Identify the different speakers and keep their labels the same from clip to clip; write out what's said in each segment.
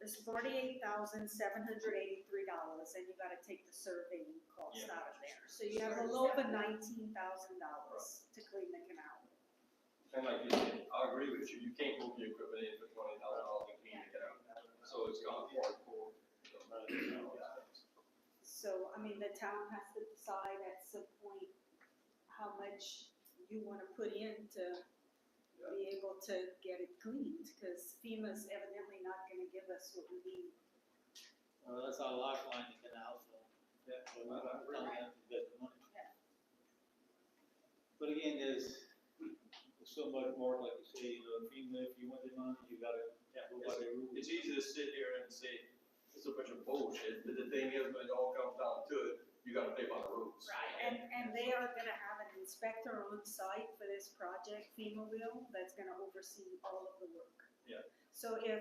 Speaker 1: It's forty-eight thousand, seven hundred eighty-three dollars, and you gotta take the surveying cost
Speaker 2: Yeah.
Speaker 1: out of there. So you have a little over nineteen thousand dollars to clean the canal.
Speaker 2: And like you said, I agree with you, you can't move your equipment in for twenty thousand dollars and clean it out. So it's gone forward for.
Speaker 1: So, I mean, the town has to decide at some point how much you wanna put in to be able to get it cleaned, cause FEMA's evidently not gonna give us what we need.
Speaker 3: Well, that's our lifeline to get out, so.
Speaker 2: Yeah.
Speaker 3: So we don't really have to get the money. But again, there's there's so much more, like you say, you know, FEMA, if you want the money, you gotta go by the rules.
Speaker 2: It's easy to sit here and say, it's a bunch of bullshit, but the thing is, when it all comes down to it, you gotta play by the rules.
Speaker 1: And, and they are gonna have an inspector on site for this project, FEMA will, that's gonna oversee all of the work.
Speaker 2: Yeah.
Speaker 1: So if,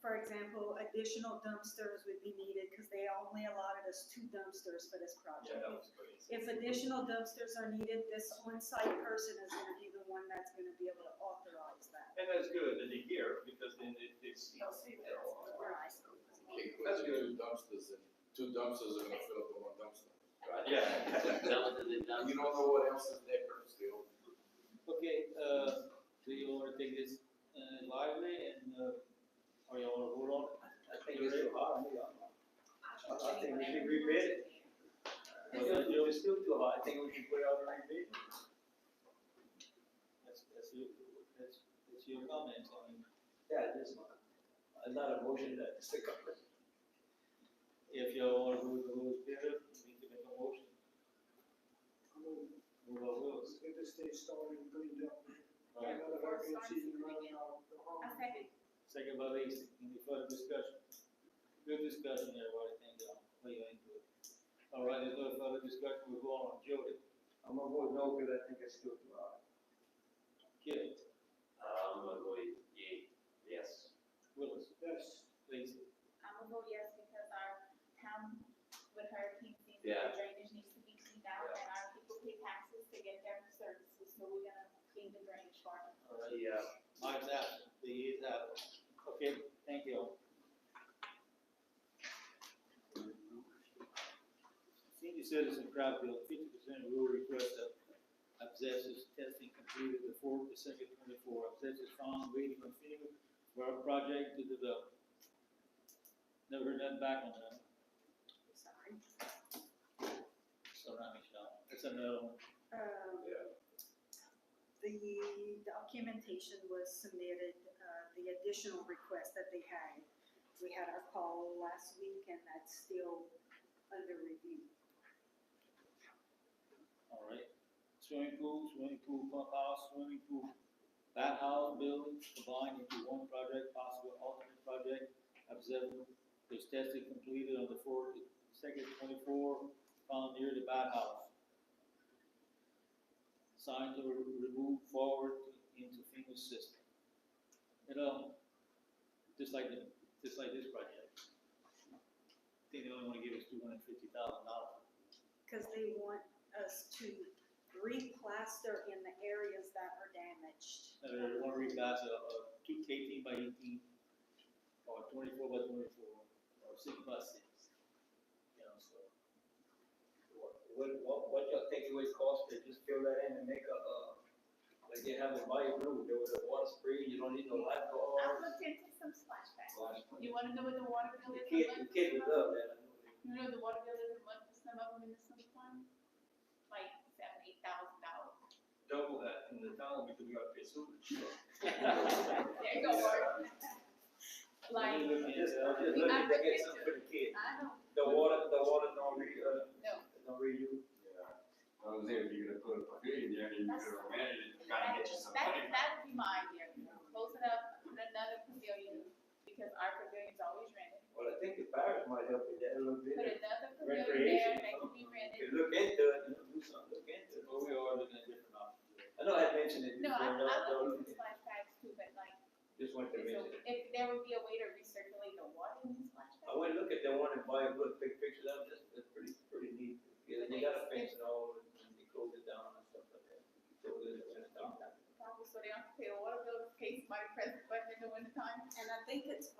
Speaker 1: for example, additional dumpsters would be needed, cause they only allotted us two dumpsters for this
Speaker 2: Yeah,
Speaker 1: project.
Speaker 2: that was crazy.
Speaker 1: If additional dumpsters are needed, this on-site person is gonna be the one that's gonna be able to authorize that.
Speaker 2: And that's good that they hear, because then it, it's.
Speaker 1: They'll see that. Right.
Speaker 4: That's gonna do dumpsters, and two dumpsters are gonna fill up the one dumpster.
Speaker 2: Yeah.
Speaker 4: And you don't know what else is there still.
Speaker 3: Okay, uh, do you wanna take this, uh, lively and, uh, or you wanna hold on? I think it's too hard, I think we should rebid it. It's still too hard, I think we should put out a rebid. That's, that's, your- that's, that's your comment on it.
Speaker 5: Yeah, it is not, uh, not a motion that is the government.
Speaker 3: If you want to move the rules better, we need to make a motion. Move our rules.
Speaker 6: Get this day started and cleaned up.
Speaker 3: Right.
Speaker 6: Another uh, hurricane season running out.
Speaker 1: Okay.
Speaker 3: Second by Lacy, any further discussion? Good discussion, everybody, thank you, what you into it. All right, there's no further discussion, we're going on, Jody,
Speaker 5: I'm gonna vote no, because I think it's still too hard.
Speaker 3: Kip,
Speaker 7: Um, I'm going, yeah, yes.
Speaker 3: Willis,
Speaker 6: Yes.
Speaker 3: Lacy.
Speaker 8: I'm gonna vote yes because our town with hurricane season,
Speaker 7: Yeah.
Speaker 8: the drainage needs to be cleaned out and our people pay taxes to get their services, so we're gonna clean the drainage for them.
Speaker 3: All right,
Speaker 2: uh,
Speaker 7: Yeah.
Speaker 3: Mike's out, the year's out, okay, thank you. Senior citizen crowd bill, fifty percent rule request of abscesses testing completed before December twenty-four, abscesses found waiting on FEMA for our project to develop. Never heard nothing back on that,
Speaker 1: Sorry.
Speaker 3: so now Michelle, that's another one.
Speaker 1: Um, The documentation was submitted, uh, the additional request that they had. We had our call last week and that's still under review.
Speaker 3: All right, swimming pool, swimming pool pump house, swimming pool, bath house buildings combined into one project, possible alternate project. Observable, was tested completed on the fourth, second twenty-four, found near the bath house. Signs were removed forward into FEMA system. You know, just like the, just like this project. I think they only wanna give us two hundred and fifty thousand dollars.
Speaker 1: Cause they want us to replaster in the areas that are damaged.
Speaker 3: that are one ring that's a, a two eighteen by eighteen, or twenty-four by twenty-four, or six by six. You know, so,
Speaker 5: What, what, what y'all think it would cost to just fill that in and make a, uh, like they have in my room, there was a water spray, you don't need no
Speaker 8: I
Speaker 5: lifeguard.
Speaker 8: looked into some splashbacks.
Speaker 5: Well,
Speaker 8: You wanna know what the water bill is?
Speaker 5: The kid, the kid would love that, I know.
Speaker 8: You know, the water bill is a month for some of them in the summertime, like seven, eight thousand dollars.
Speaker 2: Double that in the town because we gotta pay sewage.
Speaker 8: There you go, Mark. Like,
Speaker 3: Look at it, uh,
Speaker 5: I'm just looking to get something for the kid.
Speaker 8: I don't
Speaker 5: The water, the water don't re, uh,
Speaker 8: know,
Speaker 5: don't reuse.
Speaker 4: Yeah. I was there, if you're gonna put a pavilion there, you
Speaker 8: That's-
Speaker 4: could manage it, you gotta get you some
Speaker 8: That-
Speaker 4: money.
Speaker 8: That would be my idea, close it up, put another pavilion, because our pavilion's always rented.
Speaker 5: Well, I think the parish might help with that a little
Speaker 8: Put
Speaker 5: bit.
Speaker 8: another pavilion there,
Speaker 5: Recreation.
Speaker 8: that can be rented.
Speaker 5: If you look into it, you know, do something, look into it.
Speaker 3: but we are looking at different options.
Speaker 5: I know I mentioned it
Speaker 8: No,
Speaker 5: before,
Speaker 8: I,
Speaker 5: no,
Speaker 8: I
Speaker 5: don't
Speaker 8: looked
Speaker 5: look
Speaker 8: into
Speaker 5: at
Speaker 8: splash
Speaker 5: it.
Speaker 8: pads too, but like,
Speaker 5: just wanted to
Speaker 8: so
Speaker 5: mention it.
Speaker 8: if there would be a way to recirculate the water in the splash
Speaker 5: I
Speaker 8: pads.
Speaker 5: went look at the one in Bayou Brook, picked